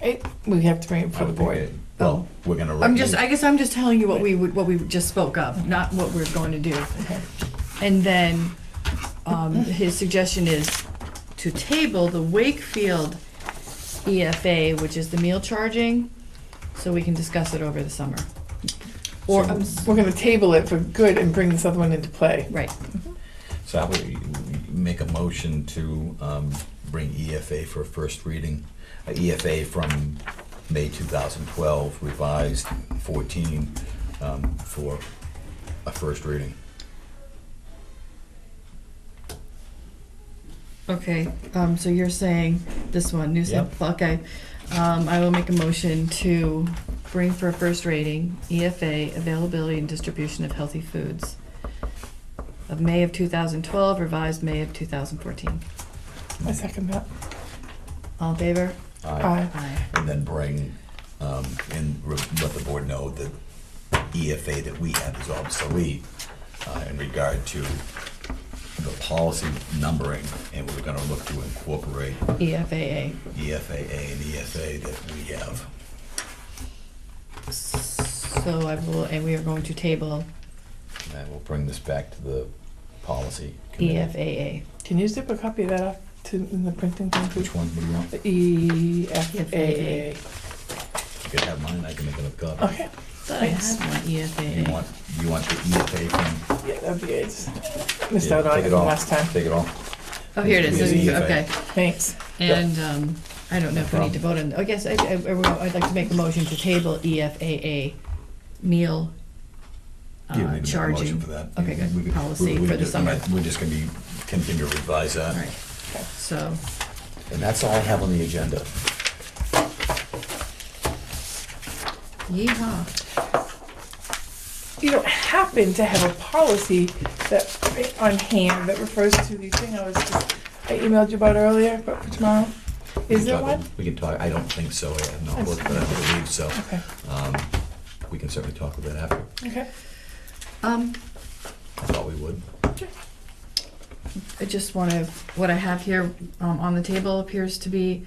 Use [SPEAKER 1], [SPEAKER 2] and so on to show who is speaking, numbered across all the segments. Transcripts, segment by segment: [SPEAKER 1] It, we have to bring it
[SPEAKER 2] I
[SPEAKER 1] for the
[SPEAKER 2] would think
[SPEAKER 1] board.
[SPEAKER 2] it-
[SPEAKER 1] Oh,
[SPEAKER 2] Well, we're gonna.
[SPEAKER 3] I'm just, I
[SPEAKER 2] recommend-
[SPEAKER 3] guess I'm just telling you what we, would- what we just spoke of, not what we're going to do. And then, um, his suggestion is to table the Wakefield EFA, which is the meal charging, so we can discuss it over the summer. Or,
[SPEAKER 2] So-
[SPEAKER 3] I'm s-
[SPEAKER 1] um, We're gonna table it for good and bring this other one into play.
[SPEAKER 3] right,
[SPEAKER 2] So I would you- you make a motion to um, bring EFA for a first reading, uh, EFA from May 2012, revised 14, um, for a first reading.
[SPEAKER 3] okay, um, so you're saying this one, new
[SPEAKER 2] Yep.
[SPEAKER 3] sample, okay. Um, I will make a motion to bring for a first rating EFA, availability and distribution of healthy foods of May of 2012, revised May of 2014.
[SPEAKER 1] I second that.
[SPEAKER 3] All in favor?
[SPEAKER 2] Aye.
[SPEAKER 1] Aye.
[SPEAKER 3] Aye.
[SPEAKER 2] And then bring, um, and re- let the board know that EFA that we have is obsolete uh, in regard to the policy numbering, and we're gonna look to incorporate
[SPEAKER 3] E EFAA.
[SPEAKER 2] E EFAA and EFA that we have.
[SPEAKER 3] So I will, and we are going to table
[SPEAKER 2] And we'll bring this back to the policy
[SPEAKER 3] E
[SPEAKER 1] E
[SPEAKER 2] committee.
[SPEAKER 3] EFAA.
[SPEAKER 1] Can you zip a copy of that up to, in the printing thing? please?
[SPEAKER 2] Which one would you want?
[SPEAKER 1] The E EFAA.
[SPEAKER 2] You could have mine, I can make another copy.
[SPEAKER 1] Okay,
[SPEAKER 3] Thought I had one
[SPEAKER 2] You
[SPEAKER 3] EFAA.
[SPEAKER 2] want, you want the E EFA from?
[SPEAKER 1] yeah, that'd be good. Just Missed
[SPEAKER 2] Yeah,
[SPEAKER 1] out on
[SPEAKER 2] take
[SPEAKER 1] it
[SPEAKER 2] it
[SPEAKER 1] the
[SPEAKER 2] off.
[SPEAKER 1] last time.
[SPEAKER 2] Take it all.
[SPEAKER 3] Oh, here it is.
[SPEAKER 2] It's EFA.
[SPEAKER 3] Okay.
[SPEAKER 1] Thanks.
[SPEAKER 3] And um, I don't know if we need to vote on, I guess I- I- I would- I'd like to make a motion to table E EFAA meal uh,
[SPEAKER 2] You need to make a motion
[SPEAKER 3] charging.
[SPEAKER 2] for that.
[SPEAKER 3] Okay, good.
[SPEAKER 2] We could-
[SPEAKER 3] Policy
[SPEAKER 2] we- we
[SPEAKER 3] for the
[SPEAKER 2] just-
[SPEAKER 3] summer.
[SPEAKER 2] We're just gonna be, continue to revise
[SPEAKER 3] All
[SPEAKER 2] that.
[SPEAKER 3] right. So,
[SPEAKER 2] And that's all I have on the agenda.
[SPEAKER 3] yeehaw.
[SPEAKER 1] You don't happen to have a policy that, on hand, that refers to the thing I was just, I emailed you about earlier, but for tomorrow? Is there
[SPEAKER 2] We
[SPEAKER 1] one?
[SPEAKER 2] can talk- We can talk, I don't think so, I have not looked, but I don't believe so.
[SPEAKER 1] Okay,
[SPEAKER 2] Um, We can certainly talk about that after,
[SPEAKER 1] okay.
[SPEAKER 3] Um,
[SPEAKER 2] I thought we would.
[SPEAKER 3] I just want to, what I have here um, on the table appears to be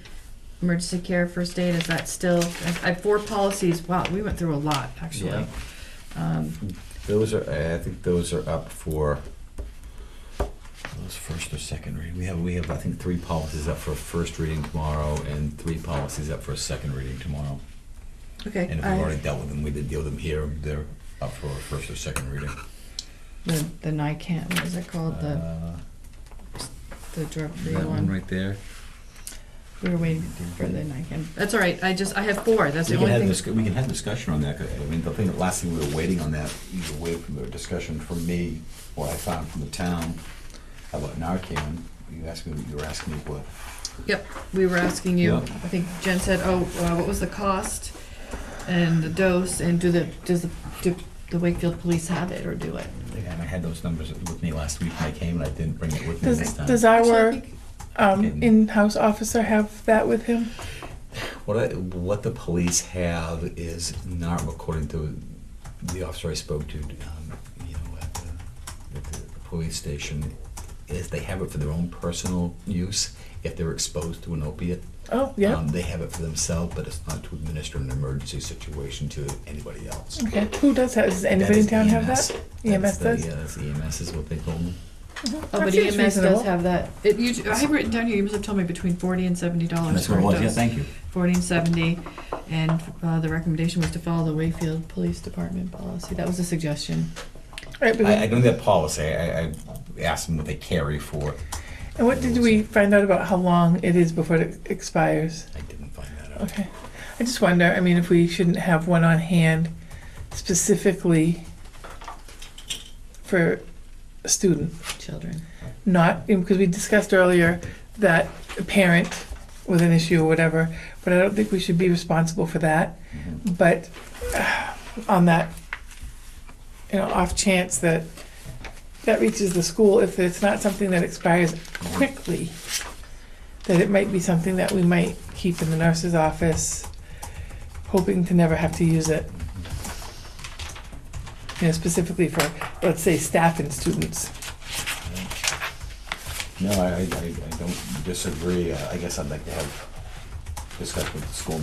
[SPEAKER 3] emergency care, first aid, is that still, I I have four policies, wow, we went through a lot,
[SPEAKER 2] Yeah.
[SPEAKER 3] actually. Um,
[SPEAKER 2] Those are, I think those are up for, those first or second reading, we have, we have, I think, three policies up for a first reading tomorrow, and three policies up for a second reading tomorrow.
[SPEAKER 3] Okay,
[SPEAKER 2] And if we've
[SPEAKER 3] I-
[SPEAKER 2] already dealt with them, we did deal with them here, they're up for a first or second reading.
[SPEAKER 3] the the NICAN, what is it called, the
[SPEAKER 2] Uh,
[SPEAKER 3] the drug-free
[SPEAKER 2] That one
[SPEAKER 3] one?
[SPEAKER 2] right there.
[SPEAKER 3] We were waiting for the NICAN. That's all right, I just, I have four, that's
[SPEAKER 2] We
[SPEAKER 3] the
[SPEAKER 2] can have,
[SPEAKER 3] only
[SPEAKER 2] dis-
[SPEAKER 3] thing.
[SPEAKER 2] we can have discussion on that, 'cause, I mean, the thing, the last thing we were waiting on that, either way from the discussion from me, or I found from the town, about Narcan, you asked me, you were asking me what,
[SPEAKER 3] Yep, we were asking you,
[SPEAKER 2] Yeah.
[SPEAKER 3] I think Jen said, oh, uh, what was the cost and the dose, and do the, does the, do the Wakefield Police have it or do it?
[SPEAKER 2] Yeah, and I had those numbers with me last week when I came, and I didn't bring it with me this
[SPEAKER 1] Does,
[SPEAKER 2] time.
[SPEAKER 1] does
[SPEAKER 3] Actually, I
[SPEAKER 1] our
[SPEAKER 3] think-
[SPEAKER 1] um, in-house officer have that with him?
[SPEAKER 2] What, I, what the police have is not according to the officer I spoke to, um, you know, at the, at the police station, is they have it for their own personal use if they're exposed to an opiate.
[SPEAKER 1] Oh, yeah.
[SPEAKER 2] Um, they have it for themselves, but it's not to administer in an emergency situation to anybody else.
[SPEAKER 1] Okay, who does that? Does
[SPEAKER 2] That
[SPEAKER 1] anybody
[SPEAKER 2] is
[SPEAKER 1] in town have
[SPEAKER 2] EMS.
[SPEAKER 1] that? EMS
[SPEAKER 2] That's the- uh, E
[SPEAKER 1] does?
[SPEAKER 2] Yeah, that's EMS is what they call them.
[SPEAKER 1] Mhm.
[SPEAKER 3] Oh,
[SPEAKER 1] That
[SPEAKER 3] but
[SPEAKER 1] seems
[SPEAKER 3] EMS
[SPEAKER 1] reasonable.
[SPEAKER 3] does have that. It, you, I have written down here, you must have told me between forty and seventy dollars
[SPEAKER 2] That's
[SPEAKER 3] for
[SPEAKER 2] what it was,
[SPEAKER 3] a
[SPEAKER 2] yeah,
[SPEAKER 3] dose.
[SPEAKER 2] thank you.
[SPEAKER 3] Forty and seventy, and, uh, the recommendation was to follow the Wakefield Police Department policy. That was a suggestion.
[SPEAKER 1] Right, but-
[SPEAKER 2] I, I don't know that policy, I, I I asked them what they carry for,
[SPEAKER 1] And what did we find out about how long it is before it expires?
[SPEAKER 2] I didn't find that out.
[SPEAKER 1] Okay. I just wonder, I mean, if we shouldn't have one on hand specifically for a student,
[SPEAKER 3] Children.
[SPEAKER 1] not, because we discussed earlier that a parent with an issue or whatever, but I don't think we should be responsible for that.
[SPEAKER 2] Mhm.
[SPEAKER 1] But uh, on that, you know, off chance that that reaches the school, if it's not something that expires quickly, that it might be something that we might keep in the nurse's office, hoping to never have to use it. You know, specifically for, let's say, staff and students.
[SPEAKER 2] No, I, I, I don't disagree. Uh, I guess I'd like to have discussion with the school